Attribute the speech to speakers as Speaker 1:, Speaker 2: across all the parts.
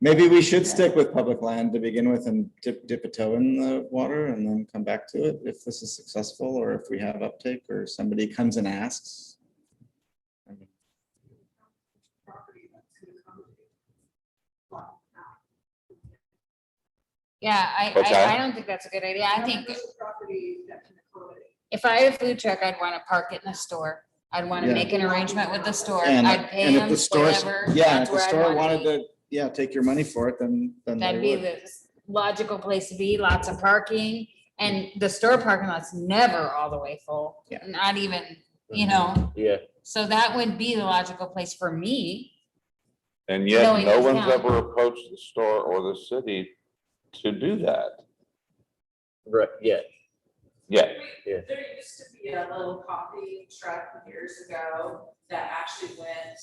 Speaker 1: Maybe we should stick with public land to begin with and dip, dip a toe in the water and then come back to it if this is successful or if we have uptake or somebody comes and asks.
Speaker 2: Yeah, I,
Speaker 3: What's
Speaker 2: I, I
Speaker 3: that?
Speaker 2: don't think that's a good idea. I think. If I had a food truck, I'd want to park it in the store. I'd want
Speaker 1: Yeah.
Speaker 2: to make an arrangement with the store.
Speaker 1: And,
Speaker 2: I'd
Speaker 1: and if
Speaker 2: pay them
Speaker 1: the store,
Speaker 2: whatever.
Speaker 1: yeah,
Speaker 2: that's
Speaker 1: if the
Speaker 2: where I'd
Speaker 1: store
Speaker 2: wanna
Speaker 1: wanted
Speaker 2: be.
Speaker 1: to, yeah, take your money for it, then, then they
Speaker 2: That'd be
Speaker 1: would.
Speaker 2: the logical place to be, lots of parking, and the store parking lot's never all the way full.
Speaker 1: Yeah.
Speaker 2: Not even, you know,
Speaker 4: Mm-hmm. Yeah,
Speaker 2: so that would be the logical place for me.
Speaker 3: And
Speaker 2: Knowing
Speaker 3: yet, no
Speaker 2: it's
Speaker 3: one's
Speaker 2: not.
Speaker 3: ever approached the store or the city to do that.
Speaker 4: right, yeah.
Speaker 3: Yeah,
Speaker 4: Yeah.
Speaker 5: There used to be a little coffee truck years ago that actually went,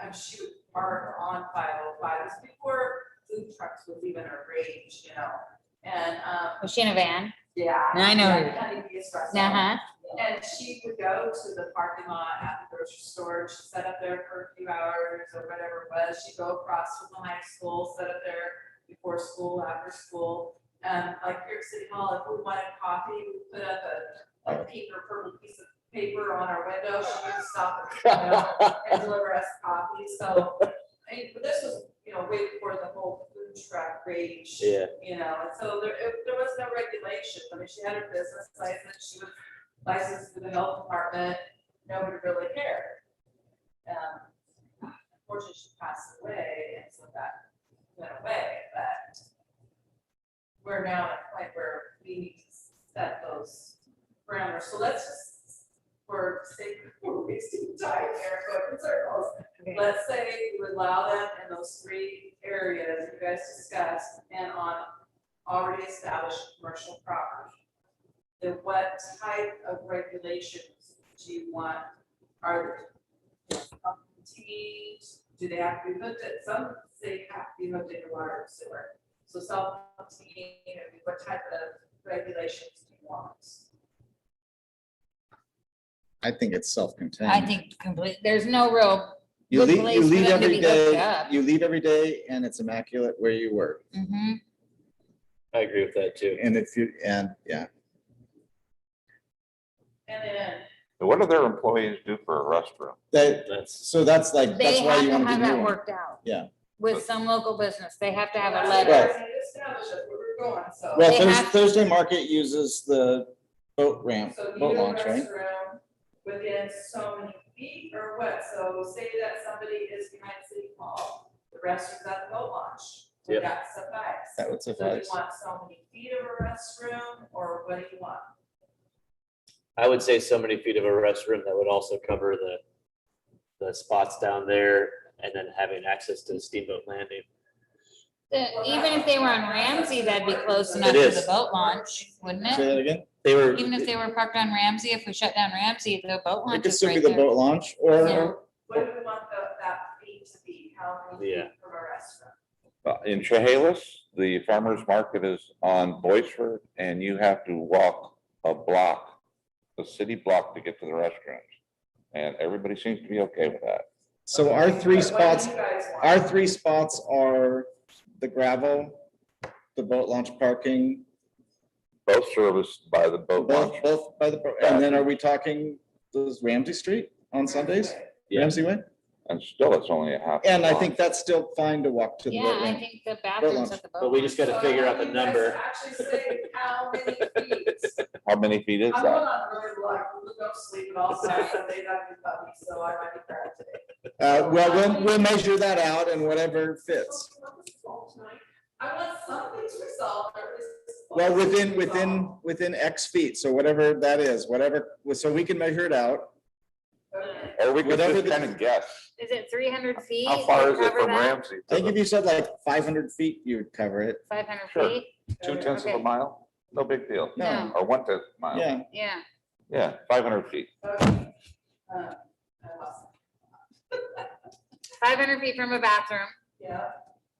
Speaker 5: I'm shoot, park on five oh five, before food trucks was even a range, you know? And, um,
Speaker 2: Was she in a van?
Speaker 5: yeah.
Speaker 2: I know.
Speaker 5: yeah, kind of used restaurant.
Speaker 2: Uh-huh.
Speaker 5: And she would go to the parking lot at the grocery store, she'd set up there for a few hours or whatever it was, she'd go across from the high school, set up there before school, after school. Um, like here at City Hall, if we wanted coffee, we put up a, a paper, purple piece of paper on our window, she would stop you know, and deliver us coffee, so. I mean, but this was, you know, way before the whole food truck rage.
Speaker 4: Yeah.
Speaker 5: You know, and so there, it- there was no regulation, I mean, she had her business license, she was licensed to the health department, nobody really cared. Um, Unfortunately, she passed away, and so that went away, but we're now at a point where we need to set those parameters, so let's just, for sake of wasting time here, go in circles.
Speaker 2: Okay.
Speaker 5: Let's say you allow them in those three areas you guys discussed and on already established commercial property. Then what type of regulations do you want? Are they contained? Do they have to be hooked at, some say have to be hooked into water and sewer. So self-contained, you know, what type of regulations do you want?
Speaker 1: I think it's self-contained.
Speaker 2: I think complete, there's no real,
Speaker 1: You
Speaker 2: good
Speaker 1: leave,
Speaker 2: place
Speaker 1: you
Speaker 2: for
Speaker 1: leave
Speaker 2: them to
Speaker 1: every
Speaker 2: be hooked
Speaker 1: day,
Speaker 2: up.
Speaker 1: you leave every day and it's immaculate where you work.
Speaker 2: mhm.
Speaker 4: I agree with that too.
Speaker 1: And if you, and yeah,
Speaker 5: And then
Speaker 3: what do their employees do for a restroom?
Speaker 1: that,
Speaker 4: That's,
Speaker 1: so that's like,
Speaker 2: they
Speaker 1: that's why
Speaker 2: have
Speaker 1: you
Speaker 2: to
Speaker 1: want to
Speaker 2: have
Speaker 1: do new
Speaker 2: that
Speaker 1: one.
Speaker 2: worked out.
Speaker 1: Yeah.
Speaker 2: With some local business, they have to have a
Speaker 5: That's
Speaker 2: letter.
Speaker 1: Right.
Speaker 5: where we Establish it, where we're going, so.
Speaker 1: Well,
Speaker 2: They
Speaker 1: Thursday,
Speaker 2: have-
Speaker 1: Thursday market uses the boat ramp,
Speaker 5: So you
Speaker 1: boat
Speaker 5: do a
Speaker 1: launch, right?
Speaker 5: restroom within so many feet or what? So say that somebody is behind City Hall, the restroom's at the boat launch. Would
Speaker 4: Yep.
Speaker 5: that suffice?
Speaker 1: That would
Speaker 5: So do you
Speaker 1: suffice.
Speaker 5: want so many feet of a restroom or what do you want?
Speaker 4: I would say so many feet of a restroom that would also cover the, the spots down there and then having access to the steamboat landing.
Speaker 2: The- Even if they were on Ramsey, that'd be close
Speaker 5: It
Speaker 2: enough to the
Speaker 4: is.
Speaker 2: boat launch, wouldn't
Speaker 1: Say
Speaker 2: it?
Speaker 1: that again?
Speaker 4: They were,
Speaker 2: Even if they were parked on Ramsey, if we shut down Ramsey, the boat
Speaker 1: It
Speaker 2: launch
Speaker 1: could
Speaker 2: is
Speaker 1: still be
Speaker 2: right
Speaker 1: the
Speaker 2: there.
Speaker 1: boat launch
Speaker 2: Yeah.
Speaker 1: or,
Speaker 5: What do we want the, that feet to be? How many
Speaker 4: Yeah.
Speaker 5: feet from a restroom?
Speaker 3: Uh, In Chehalis, the farmer's market is on Boisford and you have to walk a block, a city block to get to the restrooms. And everybody seems to be okay with that.
Speaker 1: so our three
Speaker 5: What- what do
Speaker 1: spots,
Speaker 5: you guys want?
Speaker 1: our three spots are the gravel, the boat launch parking,
Speaker 3: Both serviced by the boat
Speaker 1: both,
Speaker 3: launch.
Speaker 1: both by the, boat- and then are we talking, does Ramsey Street on Sundays?
Speaker 4: Yeah.
Speaker 1: Ramsey Way?
Speaker 3: And still, it's only a half.
Speaker 1: And I
Speaker 3: block.
Speaker 1: think that's still fine to walk to the
Speaker 2: Yeah,
Speaker 1: boat
Speaker 2: I
Speaker 1: ramp.
Speaker 2: think the bathrooms
Speaker 1: launch.
Speaker 2: at the boat.
Speaker 4: but we just gotta
Speaker 5: So
Speaker 4: figure out the
Speaker 5: you guys
Speaker 4: number.
Speaker 5: Actually say how many feet.
Speaker 3: How many feet is
Speaker 5: I'm going
Speaker 3: that?
Speaker 5: on really long, no sleep at all, so I said they got me puppy, so I might be tired today.
Speaker 1: Uh, well, we'll, we'll measure that out and whatever fits.
Speaker 5: I want this resolved tonight. I want something to resolve, or at least this
Speaker 1: Well,
Speaker 5: one to
Speaker 1: within,
Speaker 5: resolve.
Speaker 1: within, within X feet, so whatever that is, whatever, so we can measure it out.
Speaker 5: Okay.
Speaker 3: Or we could
Speaker 1: Whatever
Speaker 3: just
Speaker 1: the-
Speaker 3: kind of guess.
Speaker 2: Is it three hundred feet?
Speaker 3: How far is it from Ramsey?
Speaker 1: I think if you said like five hundred feet, you would cover it.
Speaker 2: Five hundred
Speaker 3: Sure.
Speaker 2: feet?
Speaker 3: Two tenths of a
Speaker 2: Okay.
Speaker 3: mile? No big deal.
Speaker 1: No,
Speaker 3: Or one tenth mile.
Speaker 1: yeah,
Speaker 2: Yeah,
Speaker 3: Yeah, five hundred feet.
Speaker 5: Okay. Um, I lost it.
Speaker 2: five hundred feet from a bathroom.
Speaker 5: Yeah,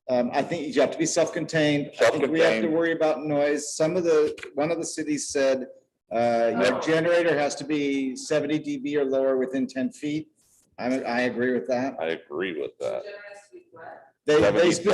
Speaker 1: um, I think you have to be self-contained. I think we have to
Speaker 3: Self-contained.
Speaker 1: worry about noise. Some of the, one of the cities said, uh, your
Speaker 5: Oh.
Speaker 1: generator has to be seventy dB or lower within ten feet. I, I agree with that.
Speaker 3: I agree with
Speaker 5: so
Speaker 3: that.
Speaker 1: Uh,
Speaker 5: generous we what?
Speaker 1: They, they
Speaker 3: 70,